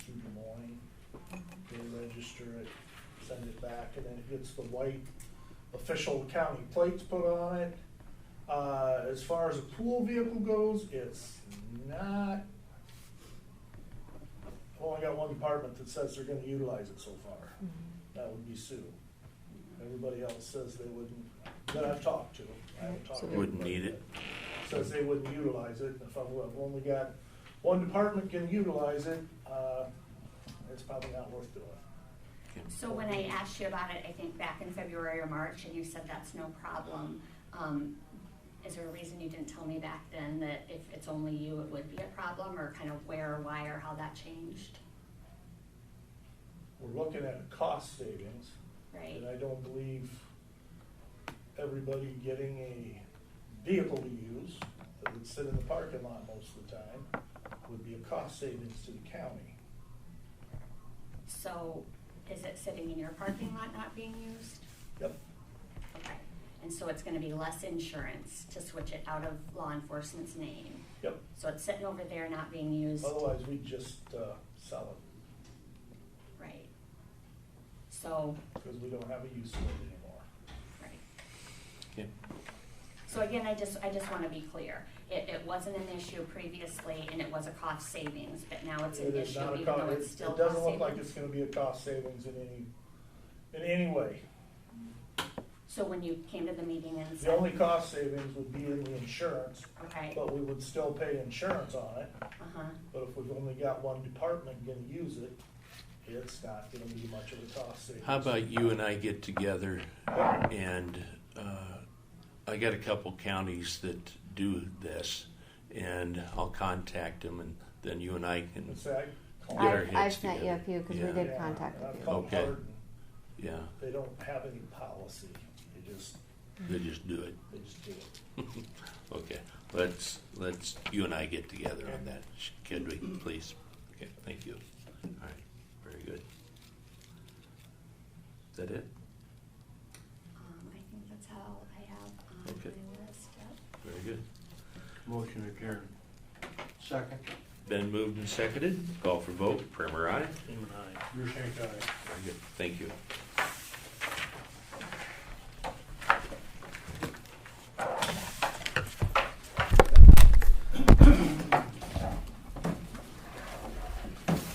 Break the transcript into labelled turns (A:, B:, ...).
A: register it, send it back, and then it gets the white official county plates put on it. Uh, as far as a pool vehicle goes, it's not, I've only got one department that says they're gonna utilize it so far. That would be Sue. Everybody else says they wouldn't, that I've talked to. I haven't talked to
B: Wouldn't
A: everybody
B: need
A: yet.
B: it.
A: Says they wouldn't utilize it, and if I've I've only got one department can utilize it, uh, it's probably not worth doing.
C: So when I asked you about it, I think back in February or March, and you said that's no problem, um, is there a reason you didn't tell me back then that if it's only you, it would be a problem, or kind of where, or why, or how that changed,
A: We're looking at a cost savings,
C: right?
A: and I don't believe everybody getting a vehicle to use that would sit in the parking lot most of the time would be a cost savings to the county.
C: So is it sitting in your parking lot not being used?
A: Yep,
C: Okay, and so it's gonna be less insurance to switch it out of law enforcement's name.
A: yep.
C: So it's sitting over there not being used.
A: Otherwise, we'd just uh, sell it,
C: Right. So,
A: because we don't have a use for it anymore.
C: right.
B: Okay.
C: So again, I just, I just wanna be clear. It, it wasn't an issue previously and it was a cost savings, but now it's an
A: It is
C: issue
A: not a
C: even
A: co-
C: though
A: it-
C: it's still
A: It
C: cost
A: doesn't look like
C: savings.
A: it's gonna be a cost savings in any, in any way.
C: So when you came to the meeting and
A: The only
C: said,
A: cost savings would be in the insurance,
C: okay,
A: but we would still pay insurance on it.
C: uh-huh,
A: But if we've only got one department gonna use it, it's not gonna be much of a cost savings.
B: How about you and I get together
A: Yep.
B: and uh, I got a couple counties that do this and I'll contact them and then you and I can,
A: It's that.
B: Get our
D: I've,
B: heads
D: I've sent you a
B: together.
D: few because
B: Yeah.
D: we did
A: Yeah,
D: contact a
A: I've
D: few.
A: called
B: Okay.
A: Hardin.
B: yeah,
A: They don't have any policy, they just,
B: they just do it.
A: they just do it.
B: Okay, let's, let's, you and I get together on that, Sh- could we, please? Okay, thank you. All right, very good. Is that it?
C: um, I think that's how I have on
B: Okay.
C: my list, yep.
B: Very good.
E: Motion adjourned. Second.
B: Been moved and seconded, call for vote, Primer, aye?
E: Even aye. Your aye.
B: Very good, thank you.